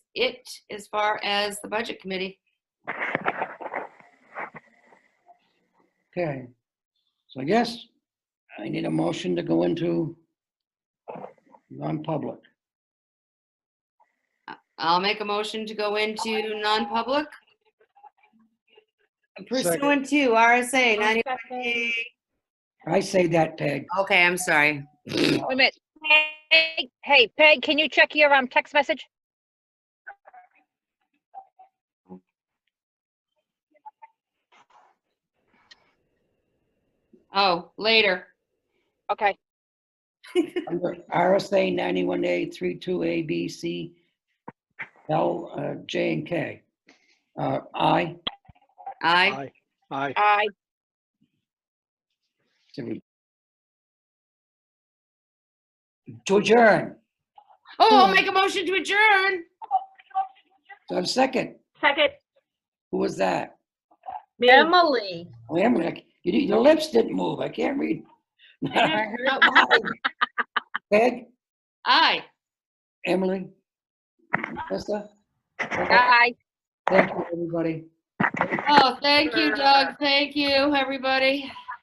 it as far as the budget committee. Okay, so I guess I need a motion to go into non-public. I'll make a motion to go into non-public. Pursuant to RSA 90. Wait I say that, Peg. Okay, I'm sorry. a minute. Peg- Hey, Peg, can you check your um text message? Oh, later. Okay, Under RSA 91A, 32A, B, C, L, uh, J, and K. Uh, I, Aye. Aye. I, to adjourn. Oh, I'll make a motion to adjourn. So I'm second. Second, Who was that? Oh, Emily. Wait a minute, you- your lips didn't move. I can't read. Peg, Aye. Emily, Melissa? I. Thank you, everybody. Oh, thank you, Doug. Thank you, everybody.